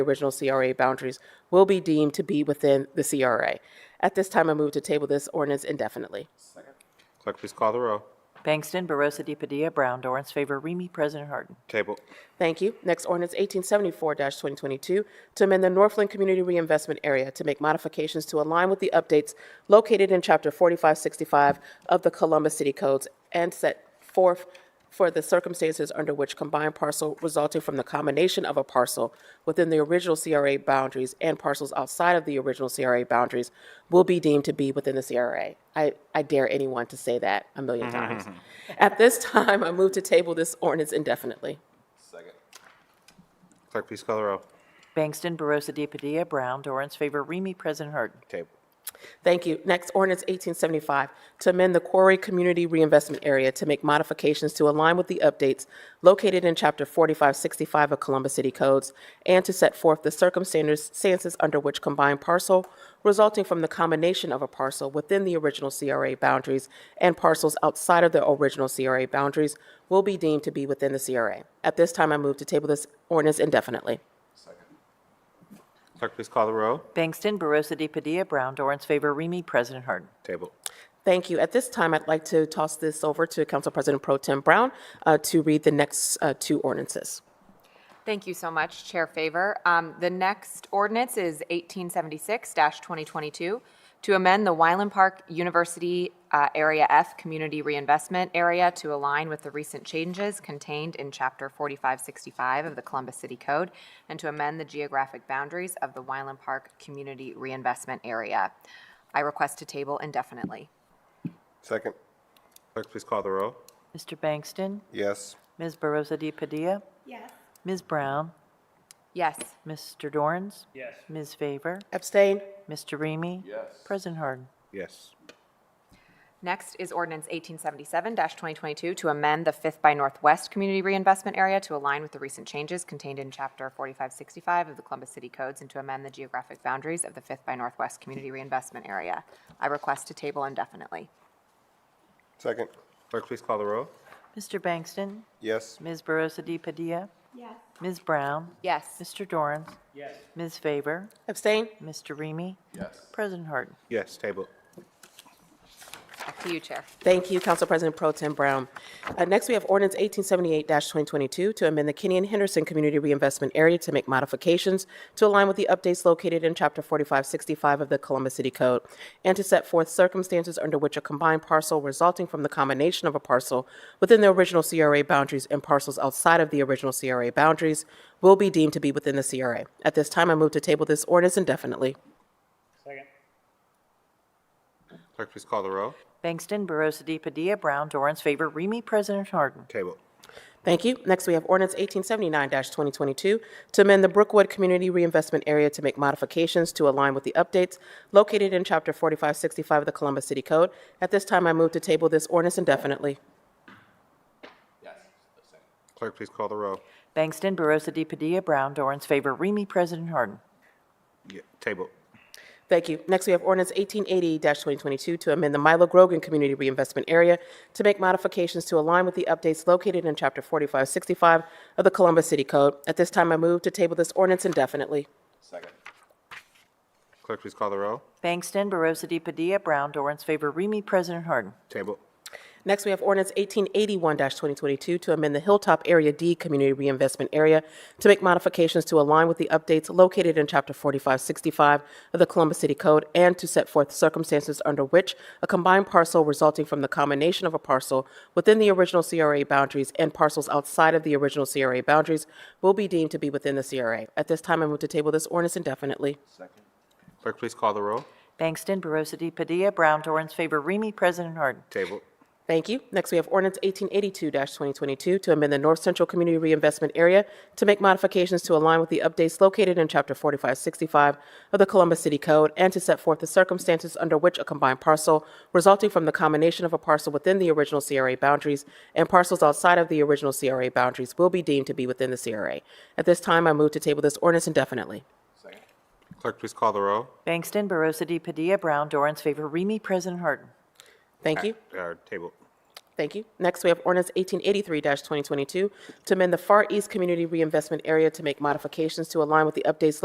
original CRA boundaries will be deemed to be within the CRA. At this time, I move to table this ordinance indefinitely. Clerk, please call the row. Bangston, Barosa de Padilla, Brown, Dorance favor, Remy, President Harden. Table. Thank you. Next, ordinance 1874-2022, to amend the Northland Community Reinvestment Area to make modifications to align with the updates located in Chapter 4565 of the Columbus City Codes and set forth for the circumstances under which combined parcel resulting from the combination of a parcel within the original CRA boundaries and parcels outside of the original CRA boundaries will be deemed to be within the CRA. I, I dare anyone to say that a million times. At this time, I move to table this ordinance indefinitely. Clerk, please call the row. Bangston, Barosa de Padilla, Brown, Dorance favor, Remy, President Harden. Table. Thank you. Next, ordinance 1875, to amend the Quarry Community Reinvestment Area to make modifications to align with the updates located in Chapter 4565 of Columbus City Codes and to set forth the circumstances under which combined parcel resulting from the combination of a parcel within the original CRA boundaries and parcels outside of the original CRA boundaries will be deemed to be within the CRA. At this time, I move to table this ordinance indefinitely. Clerk, please call the row. Bangston, Barosa de Padilla, Brown, Dorance favor, Remy, President Harden. Table. Thank you. At this time, I'd like to toss this over to Council President Pro Tem Brown uh, to read the next uh, two ordinances. Thank you so much, Chair Favor. Um, The next ordinance is 1876-2022, to amend the Wyland Park University uh, Area F Community Reinvestment Area to align with the recent changes contained in Chapter 4565 of the Columbus City Code, and to amend the geographic boundaries of the Wyland Park Community Reinvestment Area. I request to table indefinitely. Second. Clerk, please call the row. Mr. Bangston, Yes. Ms. Barosa de Padilla. Yes. Ms. Brown, Yes, Mr. Dorance. Yes. Ms. Favor, Abstain? Mr. Remy. Yes. President Harden. Yes. Next is ordinance 1877-2022 to amend the Fifth by Northwest Community Reinvestment Area to align with the recent changes contained in Chapter 4565 of the Columbus City Codes and to amend the geographic boundaries of the Fifth by Northwest Community Reinvestment Area. I request to table indefinitely. Second. Clerk, please call the row. Mr. Bangston, Yes. Ms. Barosa de Padilla. Yes. Ms. Brown, Yes. Mr. Dorance. Yes. Ms. Favor, Abstain? Mr. Remy. Yes. President Harden. Yes, table. Back to you, Chair. Thank you, Council President Pro Tem Brown. Uh, Next, we have ordinance 1878-2022 to amend the Kenny and Henderson Community Reinvestment Area to make modifications to align with the updates located in Chapter 4565 of the Columbus City Code and to set forth circumstances under which a combined parcel resulting from the combination of a parcel within the original CRA boundaries and parcels outside of the original CRA boundaries will be deemed to be within the CRA. At this time, I move to table this ordinance indefinitely. Clerk, please call the row. Bangston, Barosa de Padilla, Brown, Dorance favor, Remy, President Harden. Table. Thank you. Next, we have ordinance 1879-2022 to amend the Brookwood Community Reinvestment Area to make modifications to align with the updates located in Chapter 4565 of the Columbus City Code. At this time, I move to table this ordinance indefinitely. Clerk, please call the row. Bangston, Barosa de Padilla, Brown, Dorance favor, Remy, President Harden. Yeah, table. Thank you. Next, we have ordinance 1880-2022 to amend the Milo Grogan Community Reinvestment Area to make modifications to align with the updates located in Chapter 4565 of the Columbus City Code. At this time, I move to table this ordinance indefinitely. Clerk, please call the row. Bangston, Barosa de Padilla, Brown, Dorance favor, Remy, President Harden. Table. Next, we have ordinance 1881-2022 to amend the Hilltop Area D Community Reinvestment Area to make modifications to align with the updates located in Chapter 4565 of the Columbus City Code and to set forth circumstances under which a combined parcel resulting from the combination of a parcel within the original CRA boundaries and parcels outside of the original CRA boundaries will be deemed to be within the CRA. At this time, I move to table this ordinance indefinitely. Clerk, please call the row. Bangston, Barosa de Padilla, Brown, Dorance favor, Remy, President Harden. Table. Thank you. Next, we have ordinance 1882-2022 to amend the North Central Community Reinvestment Area to make modifications to align with the updates located in Chapter 4565 of the Columbus City Code and to set forth the circumstances under which a combined parcel resulting from the combination of a parcel within the original CRA boundaries and parcels outside of the original CRA boundaries will be deemed to be within the CRA. At this time, I move to table this ordinance indefinitely. Clerk, please call the row. Bangston, Barosa de Padilla, Brown, Dorance favor, Remy, President Harden. Thank you. Uh, table. Thank you. Next, we have ordinance 1883-2022 to amend the Far East Community Reinvestment Area to make modifications to align with the updates